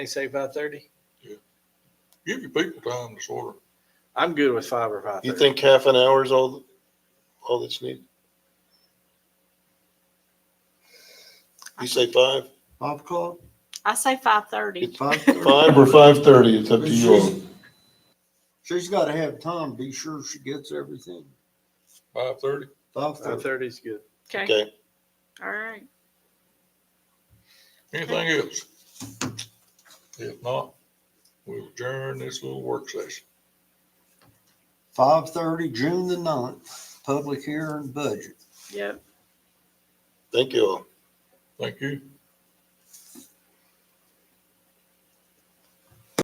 They say five thirty? Give your people time to sort of, I'm good with five or five You thirty. think half an hour is all, all that's needed? You say five, Five o'clock? I say five thirty. Five five or five thirty, it's up to you all. She's gotta have time, be sure she gets everything. five thirty, Five Five thirty. thirty is good. Okay, Okay, all right. anything else? If not, we'll adjourn this little work session. Five thirty, June the ninth, public hearing budget. Yep. thank you all. Thank you.